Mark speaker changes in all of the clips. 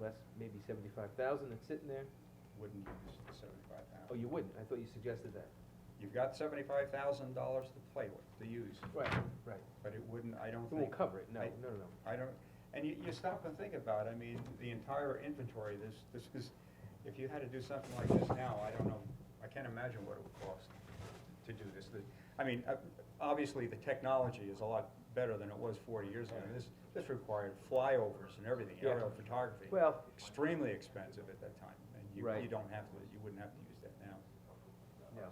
Speaker 1: less, maybe seventy-five thousand that's sitting there?
Speaker 2: wouldn't use the seventy-five thousand.
Speaker 1: Oh, you wouldn't, I thought you suggested that.
Speaker 2: You've got seventy-five thousand dollars to play with, to use,
Speaker 1: Right, right.
Speaker 2: but it wouldn't, I don't
Speaker 1: It
Speaker 2: think.
Speaker 1: won't cover it, no,
Speaker 2: I-
Speaker 1: no, no, no.
Speaker 2: I don't, and you, you stop and think about, it, I mean, the entire inventory, this, this is, if you had to do something like this now, I don't know, I can't imagine what it would cost to do this. The- I mean, uh, obviously, the technology is a lot better than it was forty years ago. This, this required flyovers and everything,
Speaker 1: Yeah.
Speaker 2: aerial photography.
Speaker 1: Well-
Speaker 2: Extremely expensive at that time, and you,
Speaker 1: Right.
Speaker 2: you don't have to, you wouldn't have to use that now.
Speaker 1: No.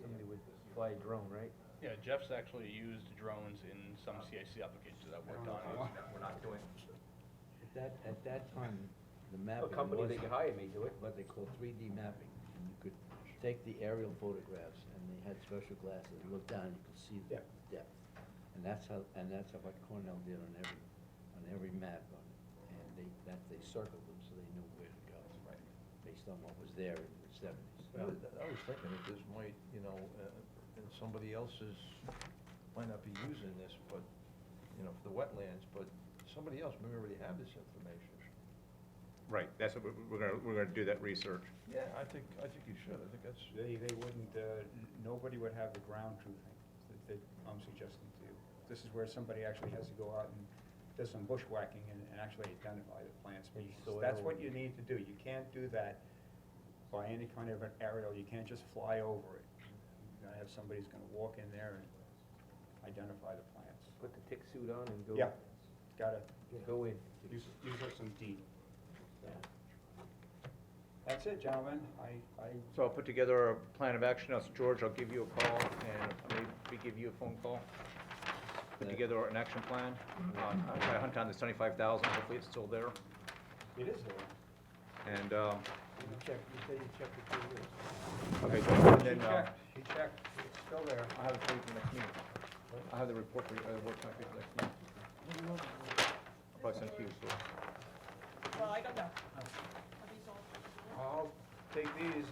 Speaker 1: Somebody would fly a drone, right?
Speaker 3: Yeah, Jeff's actually used drones in some CIC applications that I've worked on.
Speaker 2: We're not doing.
Speaker 4: At that, at that time, the
Speaker 1: A
Speaker 4: mapping was.
Speaker 1: company they could hire may do it.
Speaker 4: What they call three D mapping, and you could take the aerial photographs, and they had special glasses, and look down, you could see the depth. And that's how, and that's how what Cornell did on every, on every map, on, and they, that, they circled them, so they knew where to go. Right. Based on what was there in the seventies.
Speaker 5: I was- I was thinking that this might, you know, uh, and somebody else's, might not be using this, but, you know, for the wetlands, but somebody else may already have this information.
Speaker 6: Right, that's what, we're- we're gonna, we're gonna do that research.
Speaker 5: Yeah, I think, I think you should, I think that's,
Speaker 2: They, they wouldn't, uh, n- nobody would have the ground truthing that, that I'm suggesting to you. This is where somebody actually has to go out and do some bushwhacking and, and actually identify the plant
Speaker 1: And
Speaker 2: species.
Speaker 1: soil.
Speaker 2: That's what you need to do. You can't do that by any kind of an aerial. You can't just fly over it. You're gonna have somebody who's gonna walk in there and identify the plants.
Speaker 1: Put the tick suit on and go.
Speaker 2: Yeah, gotta
Speaker 1: Go in.
Speaker 2: use, use up some deed. That's it, gentlemen. I, I
Speaker 6: So I'll put together a plan of action, I'll, George, I'll give you a call, and maybe give you a phone call. Put together an action plan, um, I'll try to hunt down this seventy-five thousand, hopefully it's still there,
Speaker 2: It is there.
Speaker 6: and, um,
Speaker 1: You check, you say you check the two years.
Speaker 6: okay, so and
Speaker 2: She
Speaker 6: then, uh,
Speaker 2: checked, she checked. It's still there.
Speaker 6: I'll have it for you for next meeting. I'll have the report for you, uh, work copy for next meeting. I'll Probably send it to you, so.
Speaker 7: Well, I don't know. Are these all,
Speaker 2: I'll take these
Speaker 7: or
Speaker 2: and.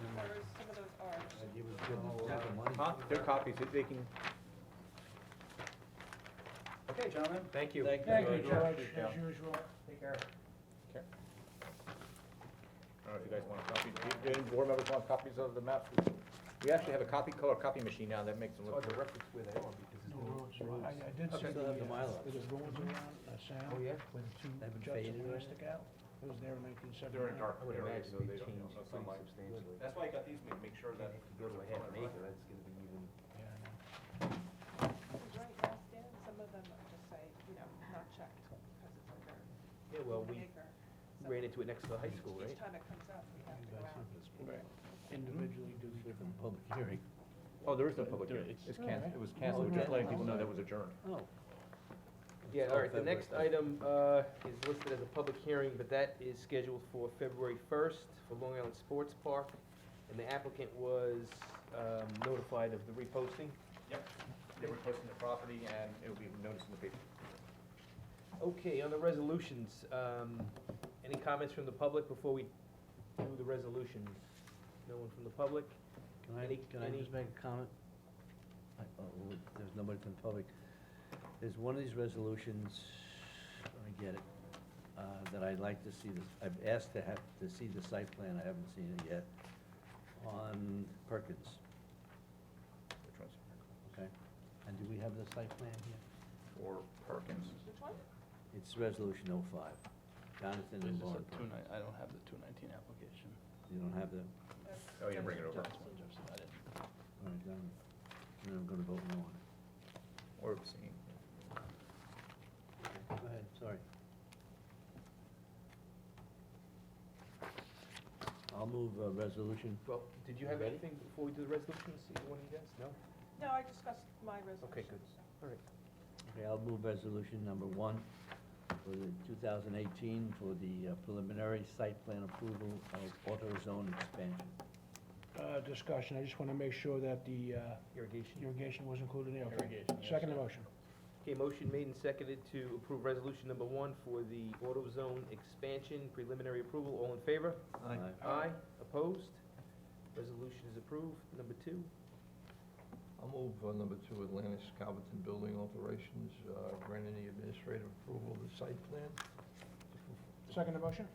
Speaker 7: some of those are?
Speaker 2: give it
Speaker 1: Oh,
Speaker 2: to I'll, uh,
Speaker 6: Huh? They're copies, They- they can,
Speaker 2: Okay, gentlemen.
Speaker 1: Thank you.
Speaker 2: Thank you, George,
Speaker 6: Yeah.
Speaker 2: as usual. Take care.
Speaker 6: I don't know if you guys want a copy, do, do any board members want copies of the maps? We actually have a copy color copy machine now, that makes them
Speaker 1: It's
Speaker 6: look
Speaker 1: hard
Speaker 6: good.
Speaker 1: to reference where they are Oh, because it's.
Speaker 8: I, I did
Speaker 4: Okay.
Speaker 8: see
Speaker 4: Still
Speaker 8: the,
Speaker 4: have the
Speaker 8: uh,
Speaker 4: Mylar.
Speaker 8: with the rules around, uh, sound,
Speaker 1: Oh, yeah?
Speaker 8: with the two
Speaker 4: They haven't
Speaker 8: juts
Speaker 4: faded
Speaker 8: of
Speaker 4: or
Speaker 8: plastic out, it was there in nineteen
Speaker 6: They're in
Speaker 8: seventy-nine.
Speaker 6: dark
Speaker 1: I would
Speaker 6: areas,
Speaker 1: imagine
Speaker 6: so
Speaker 1: they
Speaker 6: they don't,
Speaker 1: change
Speaker 6: no
Speaker 1: pretty
Speaker 6: sunlight.
Speaker 1: substantially.
Speaker 6: That's why I got these, make, make sure that.
Speaker 1: If you go to a half an acre, that's gonna be even.
Speaker 7: Because right now, Stan, some of them are just say, you know, not checked because it's under
Speaker 1: Yeah, well,
Speaker 7: an
Speaker 1: we
Speaker 7: acre. So
Speaker 1: ran into it next to the high school, right?
Speaker 7: Each time it comes up, we have to go out.
Speaker 4: Mm-hmm.
Speaker 8: Individually do the
Speaker 4: From public hearing.
Speaker 6: Oh, there is no public hearing, it's canceled, it was canceled, just letting people know that was adjourned.
Speaker 4: Oh.
Speaker 1: Yeah, all right, the
Speaker 4: February
Speaker 1: next
Speaker 4: first.
Speaker 1: item, uh, is listed as a public hearing, but that is scheduled for February first for Long Island Sports Park. And the applicant was, um, notified of the reposting.
Speaker 6: Yep, they were posting the property and it will be noticed in the paper.
Speaker 1: Okay, on the resolutions, um, any comments from the public before we do the resolutions? No one from the public?
Speaker 4: Can I,
Speaker 1: Any-
Speaker 4: can I
Speaker 1: any-
Speaker 4: just make a comment? I- oh, look, There's nobody from the public. There's one of these resolutions, I get it, uh, that I'd like to see this, I've asked to have, to see the site plan, I haven't seen it yet, on Perkins,
Speaker 6: Which ones?
Speaker 4: okay? And do we have the site plan here?
Speaker 6: Or Perkins.
Speaker 7: Which one?
Speaker 4: It's resolution oh five, Jonathan
Speaker 3: This
Speaker 4: and
Speaker 3: is a
Speaker 4: Lauren
Speaker 3: two
Speaker 4: Perkins.
Speaker 3: nine, I don't have the two nineteen application.
Speaker 4: You don't have the, all
Speaker 6: Oh, you bring it over.
Speaker 3: That's what Jeff said, I didn't.
Speaker 4: right, Jonathan, and I'm gonna vote no on it.
Speaker 6: Or obscene.
Speaker 4: Go ahead, sorry. I'll move uh resolution.
Speaker 1: Well, did you have
Speaker 4: Ready?
Speaker 1: anything before we do the resolutions, either one of you guys? No?
Speaker 7: No, I discussed my resolution.
Speaker 1: Okay, good. All right.
Speaker 4: Okay, I'll move resolution number one for the 2018 for the uh, preliminary site plan approval of auto zone expansion.
Speaker 8: Uh, discussion, I just wanna make sure that the, uh,
Speaker 1: Irrigation.
Speaker 8: irrigation was included in there, okay?
Speaker 3: Irrigation, yes,
Speaker 8: Second
Speaker 3: sir.
Speaker 8: motion,
Speaker 1: Okay, motion made and seconded to approve resolution number one for the auto zone expansion preliminary approval. All in favor?
Speaker 4: Aye.
Speaker 1: Aye. Opposed? Resolution is approved. Number two.
Speaker 5: I'll move on number two, Atlantis Calverton Building Alterations, uh, grant any administrative approval of the site plan.
Speaker 8: second motion?